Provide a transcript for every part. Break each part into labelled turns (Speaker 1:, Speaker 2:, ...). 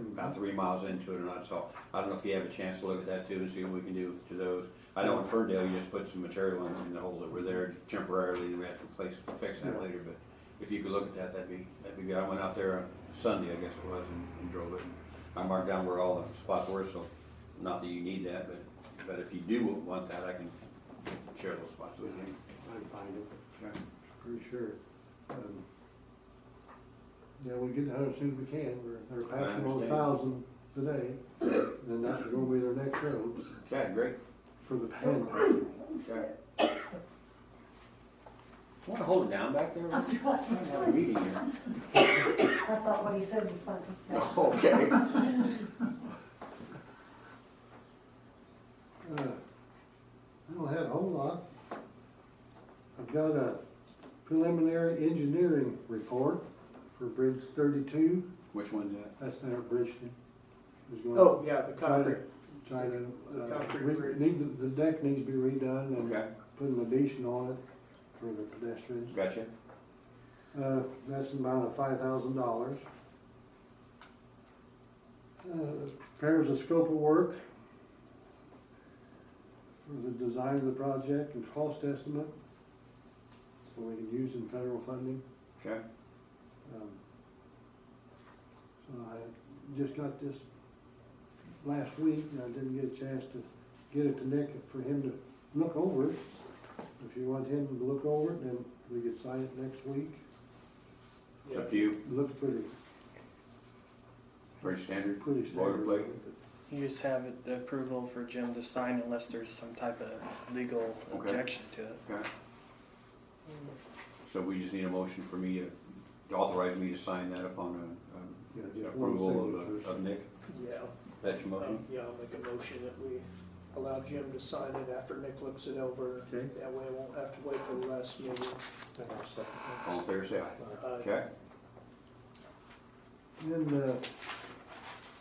Speaker 1: about three miles into it or not, so I don't know if you have a chance to look at that too and see what we can do to those. I know in Ferndale, you just put some material in, in the holes that were there temporarily, and we have to place, fix that later, but if you could look at that, that'd be, that'd be good. I went out there on Sunday, I guess it was, and, and drove it. I marked down where all the spots were, so, not that you need that, but, but if you do want that, I can share those spots with you.
Speaker 2: I can find it,
Speaker 1: Okay.
Speaker 2: pretty sure. Um, Yeah, we get out as soon as we can, we're, they're
Speaker 1: I
Speaker 2: passing on a
Speaker 1: understand.
Speaker 2: thousand today, and that's gonna be their next road
Speaker 1: Okay, great.
Speaker 2: for the panhandle.
Speaker 1: Okay. Want to hold it down back there?
Speaker 3: I
Speaker 1: We're having a meeting here.
Speaker 3: thought what he said was funny.
Speaker 1: Okay.
Speaker 2: Uh, I don't have a whole lot. I've got a preliminary engineering report for Bridge thirty-two,
Speaker 1: Which one's that?
Speaker 2: that's down at Bridgeton. It's going-
Speaker 4: Oh, yeah, the
Speaker 2: Try
Speaker 4: concrete.
Speaker 2: to, try to,
Speaker 4: The
Speaker 2: uh,
Speaker 4: concrete
Speaker 2: re-
Speaker 4: bridge.
Speaker 2: need, to- the deck needs to be redone and
Speaker 1: Okay,
Speaker 2: putting an addition on it for the pedestrians.
Speaker 1: gotcha.
Speaker 2: Uh, that's an amount of five thousand dollars. Uh, prepares a scope of work for the design of the project and cost estimate, so we can use in federal funding.
Speaker 1: Okay,
Speaker 2: Um, So I just got this last week, and I didn't get a chance to get it to Nick for him to look over it. If you want him to look over it, then we could sign it next week.
Speaker 1: it's up to you.
Speaker 2: It Looks pretty,
Speaker 1: Pretty standard.
Speaker 2: pretty standard.
Speaker 1: Boilerplate.
Speaker 5: You just have it- the approval for Jim to sign unless there's some type of legal
Speaker 1: Okay.
Speaker 5: objection to it.
Speaker 1: Okay. So we just need a motion for me to to authorize me to sign that upon uh,
Speaker 2: Yeah,
Speaker 1: um,
Speaker 2: just one
Speaker 1: approval of,
Speaker 2: signature.
Speaker 1: uh, of Nick.
Speaker 4: Yeah,
Speaker 1: That's your
Speaker 4: um,
Speaker 1: motion?
Speaker 4: yeah, I'll make a motion that we allow Jim to sign it after Nick looks it over.
Speaker 2: Okay.
Speaker 4: That way I won't have to wait for the last meeting.
Speaker 1: All in favor, say aye.
Speaker 4: Uh,
Speaker 1: Okay,
Speaker 2: Then, uh,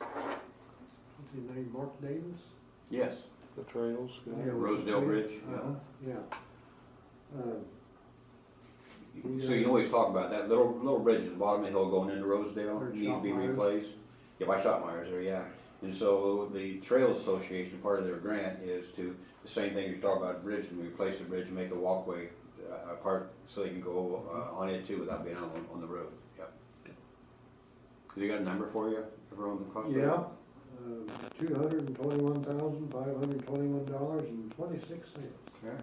Speaker 2: what's his name, Mark Davis?
Speaker 1: yes.
Speaker 6: The trails,
Speaker 2: Yeah, was
Speaker 1: Rosedale
Speaker 2: it-
Speaker 1: Bridge, yeah.
Speaker 2: Uh-huh, yeah. Um,
Speaker 1: So you always talk about that little, little bridge at the bottom of the hill going into Rosedale,
Speaker 2: Or
Speaker 1: needs to be
Speaker 2: Shopmeyer's.
Speaker 1: replaced. Yeah, by Shopmeyer's there, yeah. And so the Trail Association, part of their grant is to, the same thing you talk about bridge, and replace the bridge, and make a walkway uh, apart, so you can go uh, on it too without being on, on the road, yep. Have you got a number for you, everyone that cost?
Speaker 2: Yeah, Uh, two hundred and twenty-one thousand, five hundred and twenty-one dollars and twenty-six cents.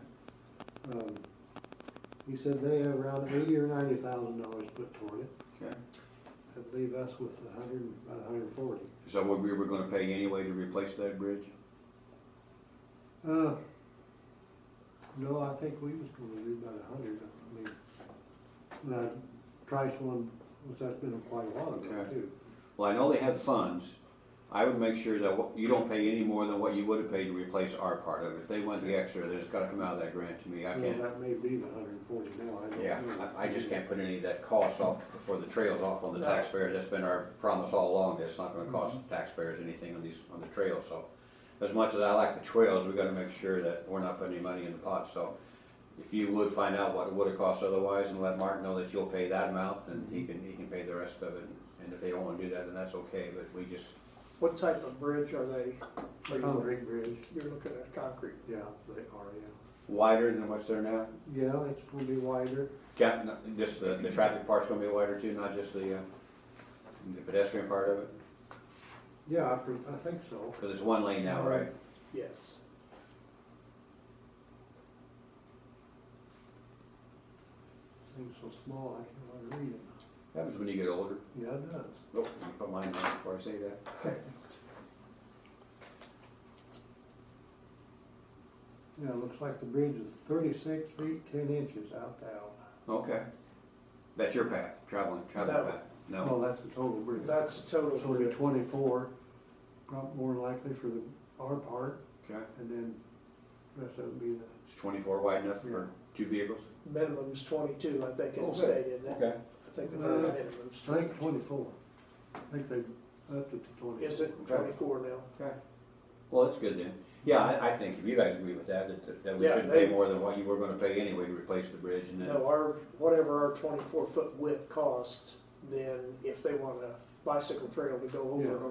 Speaker 2: Um,
Speaker 1: Okay,
Speaker 2: He said they have around eighty or ninety thousand dollars put toward it,
Speaker 1: okay.
Speaker 2: that'd leave us with a hundred, and- about a hundred and forty.
Speaker 1: Is that what we were gonna pay anyway to replace that bridge?
Speaker 2: Uh, No, I think we was gonna do about a hundred, I mean, and I priced one, which that's been quite a while ago
Speaker 1: Okay.
Speaker 2: too.
Speaker 1: Well, I know they have funds. I would make sure that what- you don't pay any more than what you would have paid to replace our part of it. If they want the extra, there's gotta come out of that grant to me. I
Speaker 2: Well,
Speaker 1: can't,
Speaker 2: That may be the hundred and forty now, I don't know.
Speaker 1: yeah, I, I just can't put any of that cost off for the trails off on the taxpayer. That's been our promise all along. that It's not gonna cost the taxpayers anything on these, on the trails, so. As much as I like the trails, we gotta make sure that we're not putting any money in the pot, so. If you would find out what it would've cost otherwise and let Mark know that you'll pay that amount, then he can, he can pay the rest of it. And if they don't wanna do that, then that's okay, but we just,
Speaker 4: What type of bridge are they? are you-
Speaker 2: Concrete bridge,
Speaker 4: You're looking at concrete.
Speaker 2: yeah, they are, yeah.
Speaker 1: wider than what's there now?
Speaker 2: Yeah, it's gonna be wider.
Speaker 1: Yeah, no, just the, the traffic part's gonna be wider too, not just the, uh, the pedestrian part of it?
Speaker 2: Yeah, I, pre- I think so.
Speaker 1: Cause it's one lane now, right?
Speaker 4: Yes.
Speaker 2: Thing's so small, I can't hardly read it.
Speaker 1: Happens when you get older.
Speaker 2: Yeah, it does.
Speaker 1: Oh, I put mine down before I say that.
Speaker 2: Yeah, it looks like the bridge is thirty-six feet, ten inches out to out.
Speaker 1: Okay. That's your path, traveling, traveling
Speaker 4: No.
Speaker 1: path?
Speaker 2: Oh,
Speaker 1: No?
Speaker 2: that's the total bridge.
Speaker 4: That's the total.
Speaker 2: So it'll be
Speaker 4: bridge.
Speaker 2: twenty-four, probably more likely for the, our part,
Speaker 1: Okay.
Speaker 2: and then rest of it would be the,
Speaker 1: It's twenty-four wide enough for two vehicles?
Speaker 4: Minimum's twenty-two, I think
Speaker 1: Okay.
Speaker 4: it stated. that.
Speaker 1: Okay.
Speaker 4: I think the
Speaker 2: Uh,
Speaker 4: very minimum's
Speaker 2: I think
Speaker 4: twenty-two.
Speaker 2: twenty-four. I think they upped it to twenty-four.
Speaker 4: Is it
Speaker 1: Okay.
Speaker 4: twenty-four now?
Speaker 1: Okay. Well, that's good then. Yeah, I, I think if you guys agree with that, that, that we
Speaker 4: Yeah,
Speaker 1: shouldn't
Speaker 4: they-
Speaker 1: pay more than what you were gonna pay anyway to replace the bridge and then.
Speaker 4: No, our, whatever our twenty-four foot width costs, then if they want a bicycle trail to go over
Speaker 2: Yeah.
Speaker 4: it on